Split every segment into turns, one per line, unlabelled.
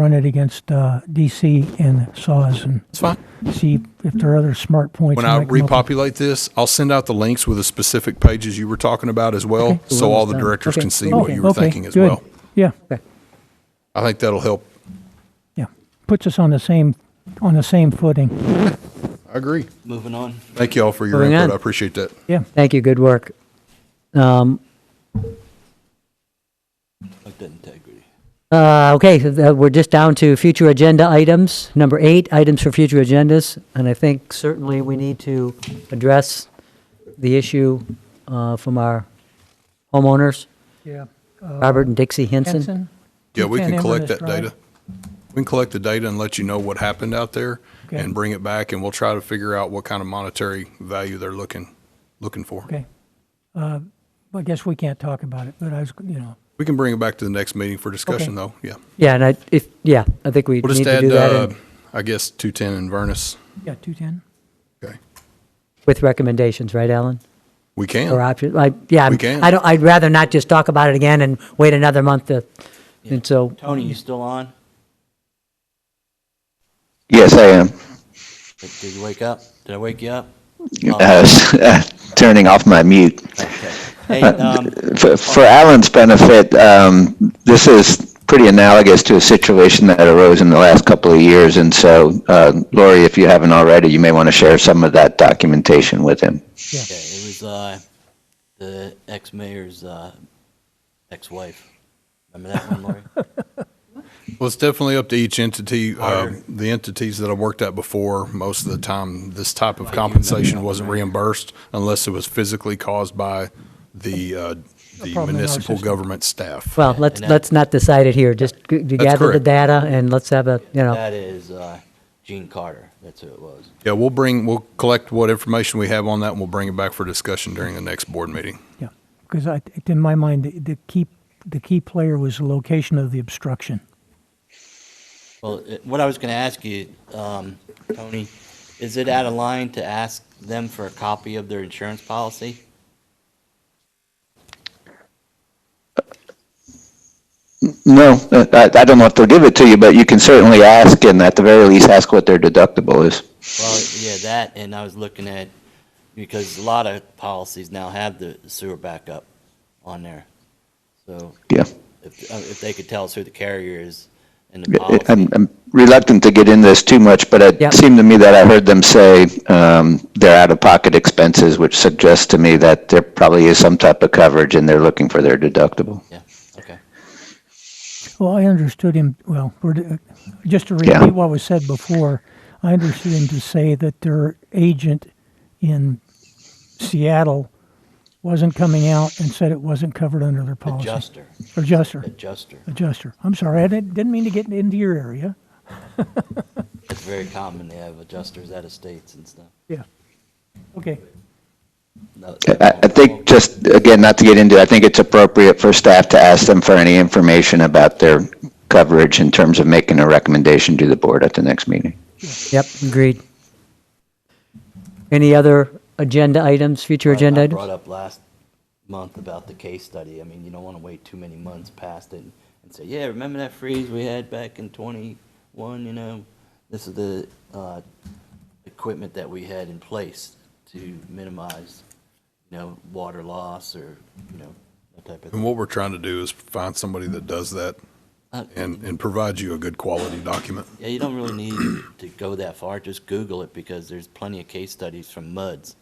run it against uh, DC and Saws and
It's fine.
see if there are other smart points.
When
and
I
make them up.
repopulate this, I'll send out the links with the specific pages you were talking about as well,
Okay.
so all the
Done.
directors
Okay.
can see
Oh,
what you were
okay,
thinking as
good.
well.
Yeah,
I think that'll help.
yeah. Puts us on the same, on the same footing.
I agree.
Moving on.
Thank you all for your
Moving
input.
on.
I appreciate that.
Yeah.
Thank you, good work. Um,
Like that integrity.
uh, Okay, so that- we're just down to future agenda items. Number eight, items for future agendas, and I think certainly we need to address the issue uh, from our homeowners,
Yeah.
Robert and Dixie Henson.
Henson?
Yeah, we can
10M on
collect
this
that data.
drive.
We can collect the data and let you know what happened out there
Okay.
and bring it back, and we'll try to figure out what kind of monetary value they're looking, looking for.
Okay. Uh, I guess we can't talk about it, but I was, you know,
We can bring it back to the next meeting for discussion, though, yeah.
Yeah, and I, if, yeah, I think we
We'll just
need to
add,
do that
uh,
and-
I guess, 210 in Vernus.
yeah, 210.
Okay.
with recommendations, right, Alan?
We
Or
can.
options, like, yeah,
We
I'm-
can.
I don't, I'd rather not just talk about it again and wait another month to, and so,
Tony, you still on?
Yes, I am.
Did did you wake up? Did I wake you up?
Uh, turning off my mute.
Okay. Hey, um,
For, for Alan's benefit, um, this is pretty analogous to a situation that arose in the last couple of years. And so, uh, Lori, if you haven't already, you may want to share some of that documentation with him.
yeah, it was, uh, the ex-mayor's, uh, ex-wife. Remember that one, Lori?
Well, it's definitely up to each entity. Uh,
Higher.
The entities that I worked at before, most of the time, this type of compensation wasn't reimbursed unless it was physically caused by the, uh, the
problem in our
municipal
system.
government staff.
well, let's,
and that-
let's not decide it here, just g- to gather the
correct.
data and let's have a, you know,
That is, uh, Gene Carter. That's who it was.
Yeah, we'll bring, we'll collect what information we have on that, and we'll bring it back for discussion during the next board meeting.
Yeah, because I, in my mind, the, the key, the key player was the location of the obstruction.
Well, it- what I was going to ask you, um, Tony, is it out of line to ask them for a copy of their insurance policy?
No, uh, I, I don't know if they'll give it to you, but you can certainly ask, and at the very least, ask what their deductible is.
Well, yeah, that, and I was looking at, because a lot of policies now have the sewer backup on there. So
Yeah.
if, uh, if they could tell us who the carrier is and the
I-
policy.
I'm, I'm reluctant to get into this too much, but
Yep.
it seemed to me that I heard them say um, they're out-of-pocket expenses, which suggests to me that there probably is some type of coverage and they're looking for their deductible.
Yeah, okay.
Well, I understood him, well, we're- uh, just to
Yeah.
repeat what was said before, I understood him to say that their agent in Seattle wasn't coming out and said it wasn't covered under their policy.
Adjuster,
Adjuster,
adjuster.
adjuster. I'm sorry, I didn't, didn't mean to get into your area.
It's very common. They have adjusters out of states and stuff.
Yeah. Okay,
No,
I, I
Oh.
think just, again, not to get into, it, I think it's appropriate for staff to ask them for any information about their coverage in terms of making a recommendation to the board at the next meeting.
yep, agreed. Any other agenda items, future
I-
agenda
I
items?
brought up last month about the case study. I mean, you don't want to wait too many months past it and say, yeah, remember that freeze we had back in twenty-one, you know? This is the, uh, equipment that we had in place to minimize, you know, water loss or, you know, that type of
And
thing.
what we're trying to do is find somebody that does that
Uh,
and, and provide you a good quality document.
Yeah, you don't really need to go that far. Just Google it because there's plenty of case studies from MUDs,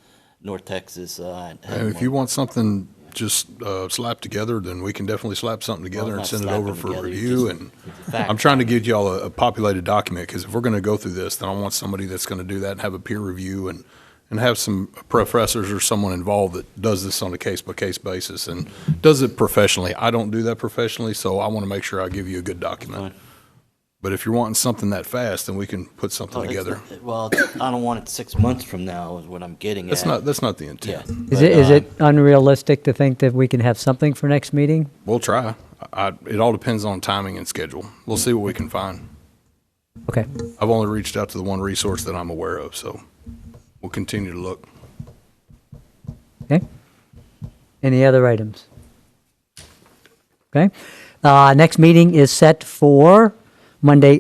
North Texas. uh, had
And if
one.
you want something just uh, slapped together, then we can definitely slap something together
not
and send it
slap
over
them
for
together,
review.
it's
And
just- it's a fact.
I'm trying to give y'all a a populated document, because if we're going to go through this, then I want somebody that's going to do that and have a peer review and, and have some professors or someone involved that does this on a case-by-case basis and does it professionally. I don't do that professionally, so I want to make sure I give you a good document.
Fine.
But if you're wanting something that fast, then we can put something
Well, it's
together.
Oh, not- Well, I don't want it six months from now is what I'm getting at.
That's not, that's not the
Yeah.
intent.
Is
but,
it, is
uh,
it unrealistic to think that we can have something for next meeting?
We'll try. I, it all depends on timing and schedule. We'll see what we can find.
Okay,
I've only reached out to the one resource that I'm aware of, so we'll continue to look.
okay. Any other items? Okay, uh, next meeting is set for Monday,